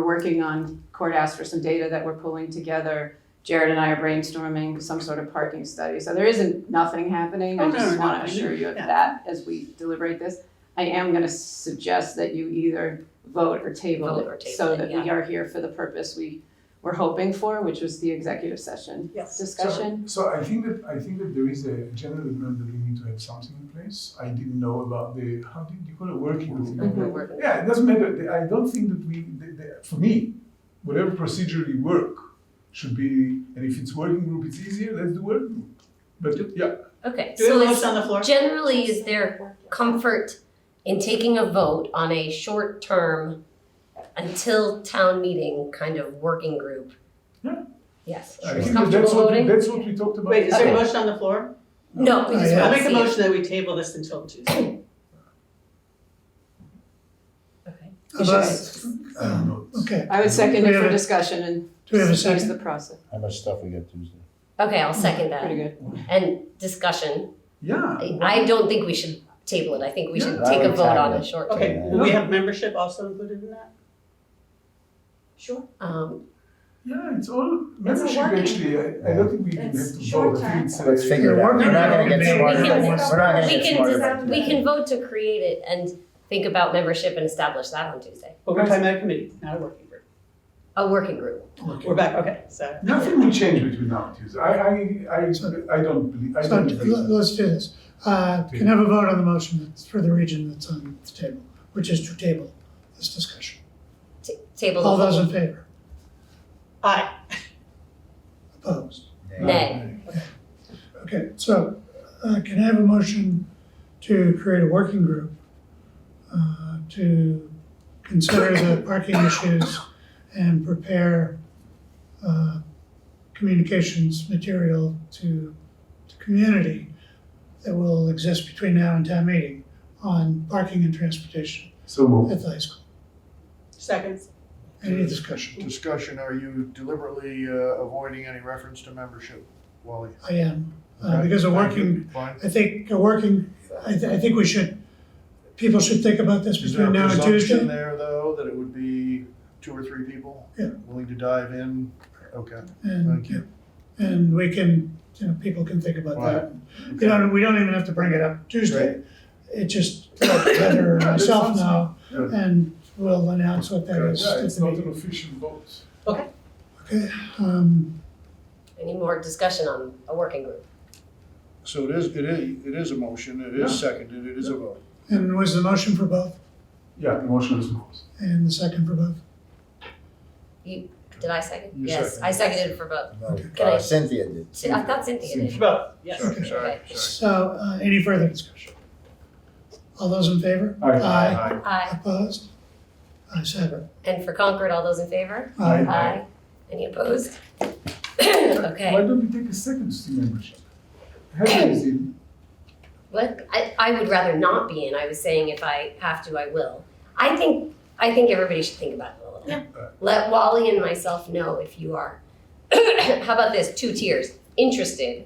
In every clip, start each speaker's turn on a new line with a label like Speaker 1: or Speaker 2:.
Speaker 1: We're working on, Court asked for some data that we're pulling together. Jared and I are brainstorming some sort of parking study, so there isn't nothing happening,
Speaker 2: Oh,
Speaker 1: I
Speaker 2: no,
Speaker 1: just
Speaker 2: no, no,
Speaker 1: wanna
Speaker 2: I
Speaker 1: assure you of
Speaker 2: yeah.
Speaker 1: that as we deliberate this. I am gonna suggest that you either vote or table
Speaker 3: Vote or
Speaker 1: it, so
Speaker 3: table it,
Speaker 1: that we are here for the purpose we were hoping for, which was the executive session
Speaker 2: Yes.
Speaker 1: discussion.
Speaker 4: So I think that I think that there is a general agreement that we need to have something in place. I didn't know about the how do you call it working group?
Speaker 1: Mhm.
Speaker 3: Mm-hmm.
Speaker 4: Yeah, it doesn't matter. The- I don't think that we the, the, for me, whatever procedure we work should be, and if it's working group, it's easier. Let's do working group. But yeah,
Speaker 3: Okay,
Speaker 2: Do we have
Speaker 3: so
Speaker 2: a
Speaker 3: it's
Speaker 2: motion on the floor?
Speaker 3: generally is there comfort in taking a vote on a short term until town meeting kind of working group?
Speaker 4: Yeah.
Speaker 3: Yes,
Speaker 4: I
Speaker 3: is
Speaker 4: think that
Speaker 3: comfortable
Speaker 4: that's what we,
Speaker 3: voting?
Speaker 4: that's what we talked about.
Speaker 2: Wait, is there a
Speaker 3: Okay.
Speaker 2: motion on the floor?
Speaker 3: No, we just
Speaker 4: Yeah.
Speaker 2: I'll
Speaker 3: wanna
Speaker 2: make a
Speaker 3: see it.
Speaker 2: motion that we table this until Tuesday.
Speaker 3: Okay.
Speaker 1: You should-
Speaker 5: About-
Speaker 4: I don't know.
Speaker 5: Okay,
Speaker 1: I would second
Speaker 5: Do we
Speaker 1: it for
Speaker 5: have a-
Speaker 1: discussion and
Speaker 5: do we have a
Speaker 1: that's
Speaker 5: second?
Speaker 1: the process,
Speaker 6: How much stuff we got Tuesday?
Speaker 3: Okay, I'll second
Speaker 1: pretty
Speaker 3: that.
Speaker 1: good.
Speaker 3: And discussion,
Speaker 4: Yeah.
Speaker 3: I I don't think we should table it, I think we should
Speaker 6: Yeah.
Speaker 3: take
Speaker 6: I
Speaker 3: a
Speaker 6: would
Speaker 3: vote on
Speaker 6: table
Speaker 3: a
Speaker 6: it.
Speaker 3: short term.
Speaker 2: Okay, will we have membership also included in that?
Speaker 7: Sure.
Speaker 3: Um,
Speaker 4: Yeah, it's all membership
Speaker 7: working
Speaker 4: actually. I, I don't think we even
Speaker 7: It's
Speaker 4: have to
Speaker 7: short
Speaker 4: vote. I think
Speaker 7: term.
Speaker 4: it's a-
Speaker 6: Let's figure it out. We're not gonna get
Speaker 5: We can-
Speaker 6: smarter.
Speaker 3: we
Speaker 6: We're
Speaker 3: can-
Speaker 6: not gonna
Speaker 3: we
Speaker 6: get
Speaker 3: can
Speaker 6: smarter.
Speaker 7: decide-
Speaker 3: we can vote to create it and think about membership and establish that on Tuesday,
Speaker 2: But we're talking about a committee, not a working group.
Speaker 3: a working group.
Speaker 2: We're back, okay, so.
Speaker 4: Nothing will change between now and Tuesday. I, I, I, I don't believe, I
Speaker 5: So
Speaker 4: don't
Speaker 5: let-
Speaker 4: believe.
Speaker 5: let's do this. Uh, Can have a vote on the motion that's for the region that's on the table, which is to table this discussion.
Speaker 3: Ta- Table. the
Speaker 5: All those
Speaker 3: whole-
Speaker 5: in favor?
Speaker 2: Aye,
Speaker 5: Opposed?
Speaker 3: Nay.
Speaker 5: Okay, so uh, can I have a motion to create a working group uh, to consider the parking issues and prepare uh, communications material to the community that will exist between now and town meeting on parking and transportation
Speaker 4: So move.
Speaker 5: at the high school?
Speaker 2: seconds.
Speaker 5: Any discussion?
Speaker 8: discussion, are you deliberately uh, avoiding any reference to membership, Wally?
Speaker 5: I am, uh, because a
Speaker 8: Thank you.
Speaker 5: working
Speaker 8: Fine.
Speaker 5: I think a working, I, th- I think we should, people should think about this
Speaker 8: Is there
Speaker 5: between
Speaker 8: a
Speaker 5: now and
Speaker 8: presumption
Speaker 5: Tuesday.
Speaker 8: there, though, that it would be two or three people?
Speaker 5: Yeah.
Speaker 8: Willing to dive in? Okay.
Speaker 5: And,
Speaker 8: Thank you.
Speaker 5: and we can, you know, people can think about that. You know, and we don't even have to bring it up Tuesday. It just, Heather and
Speaker 4: Yeah, that
Speaker 5: myself
Speaker 4: sounds-
Speaker 5: know,
Speaker 4: Yeah,
Speaker 5: and we'll announce what that is at
Speaker 4: it's
Speaker 5: the
Speaker 4: not an
Speaker 5: meeting.
Speaker 4: official vote.
Speaker 5: Okay, um,
Speaker 3: Any more discussion on a working group?
Speaker 8: So it is, it is, it is a motion, it is seconded, it is a vote.
Speaker 5: and was the motion for both
Speaker 4: Yeah, the motion is moved.
Speaker 5: and the second for both?
Speaker 3: Did I second?
Speaker 8: You
Speaker 3: Yes,
Speaker 8: seconded.
Speaker 3: I seconded for both.
Speaker 6: No, uh, Cynthia did.
Speaker 3: See, I thought Cynthia did.
Speaker 2: Vote, yes.
Speaker 8: Sorry, sorry,
Speaker 3: Okay.
Speaker 8: sorry.
Speaker 5: So, uh, any further discussion? All those in favor?
Speaker 4: Aye.
Speaker 3: Aye.
Speaker 5: Opposed? I have it.
Speaker 3: And for Concord, all those in favor?
Speaker 5: Aye.
Speaker 3: Aye. Any opposed?
Speaker 4: Why
Speaker 3: Okay.
Speaker 4: don't we take a second to membership? Heather is in.
Speaker 3: What? I, I would rather not be in. I was saying if I have to, I will. I think, I think everybody should think about it a little.
Speaker 4: Yeah.
Speaker 3: Let Wally and myself know if you are. How about this? Two tiers, interested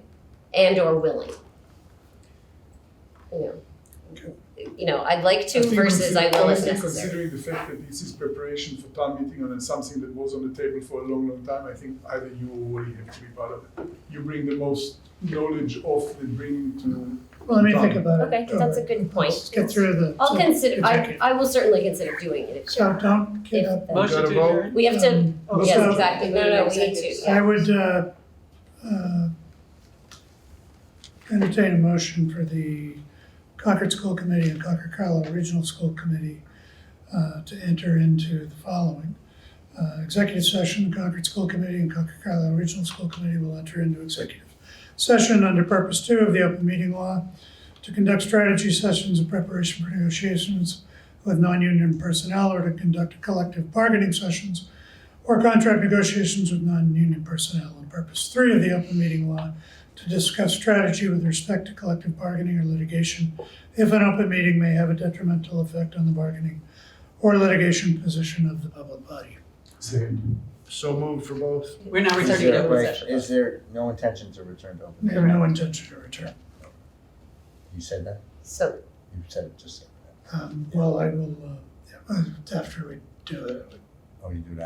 Speaker 3: and or willing. You know. You know, I'd like to
Speaker 4: I think
Speaker 3: versus I
Speaker 4: consider-
Speaker 3: will if
Speaker 4: honestly,
Speaker 3: necessary.
Speaker 4: Considering the fact that this is preparation for town meeting and it's something that was on the table for a long, long time, I think either you or Wally have to be part of it. You bring the most knowledge of the bring to.
Speaker 5: Well, let me think about it.
Speaker 3: Okay, that's a good point.
Speaker 5: Let's get through the.
Speaker 3: I'll consider, I,
Speaker 5: executive.
Speaker 3: I will certainly consider doing it if
Speaker 5: So don't get up.
Speaker 3: If-
Speaker 2: Motion to
Speaker 8: Gotta vote.
Speaker 2: adjourn?
Speaker 3: We have to,
Speaker 5: Um,
Speaker 2: Oh,
Speaker 3: yes,
Speaker 5: so-
Speaker 3: exactly, no, no, no, we need to,
Speaker 5: I would uh, uh, entertain a motion for the Concord School Committee and Concord Carlisle Regional School Committee uh, to enter into the following. Uh, Executive session, Concord School Committee and Concord Carlisle Regional School Committee will enter into executive session under purpose two of the open meeting law to conduct strategy sessions in preparation for negotiations with non-union personnel or to conduct collective bargaining sessions or contract negotiations with non-union personnel on purpose three of the open meeting law to discuss strategy with respect to collective bargaining or litigation if an open meeting may have a detrimental effect on the bargaining or litigation position of the public body.
Speaker 4: Second.
Speaker 8: So moved for both?
Speaker 2: We're now
Speaker 6: Is
Speaker 2: returning to
Speaker 6: there,
Speaker 2: open
Speaker 6: wait,
Speaker 2: session.
Speaker 6: is there no intention to return to open?
Speaker 5: We have no intention to return.
Speaker 6: You said that?
Speaker 3: so,
Speaker 6: You said it just.
Speaker 5: Um, well, I will, uh, yeah, after we do it,
Speaker 6: Oh, you do that?